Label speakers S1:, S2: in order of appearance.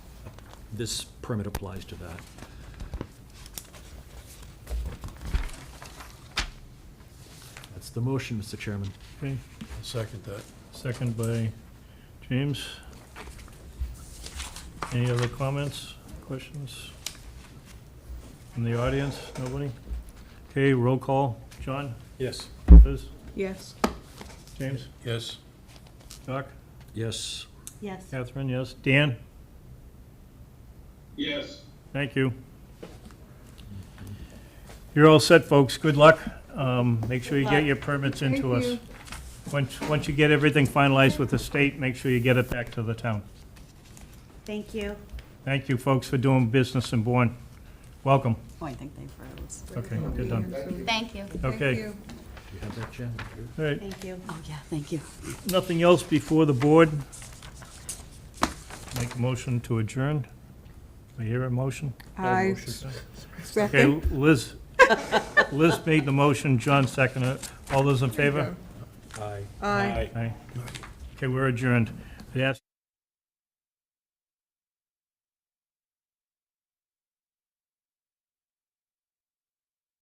S1: this permit applies to that. That's the motion, Mr. Chairman.
S2: Okay,
S3: I'll second that.
S2: second by James. Any other comments, questions? From the audience, nobody? Okay, roll call. John,
S1: Yes.
S2: Liz,
S4: Yes.
S2: James,
S3: Yes,
S2: Doc,
S1: Yes.
S4: Yes.
S2: Catherine, yes. Dan,
S5: yes,
S2: thank you. You're all set, folks. Good luck. Um, Make sure you
S4: Good
S2: get
S4: luck.
S2: your permits
S4: Thank
S2: into us.
S4: you.
S2: Once, once you get everything finalized with the state, make sure you get it back to the town.
S6: Thank you.
S2: Thank you, folks, for doing business in Bourne. Welcome.
S6: Oh, I think they froze.
S2: Okay, good done.
S7: Thank you.
S2: Okay.
S4: Thank you.
S1: Do you have that, Jen?
S2: All right,
S6: Thank you. Oh, yeah, thank you.
S2: nothing else before the board? Make a motion to adjourn. Do I hear a motion?
S4: I
S2: Okay,
S4: second.
S2: Liz, Liz made the motion, John seconded it. All those in favor?
S1: Aye.
S4: Aye.
S2: Aye. Okay, we're adjourned. Yes.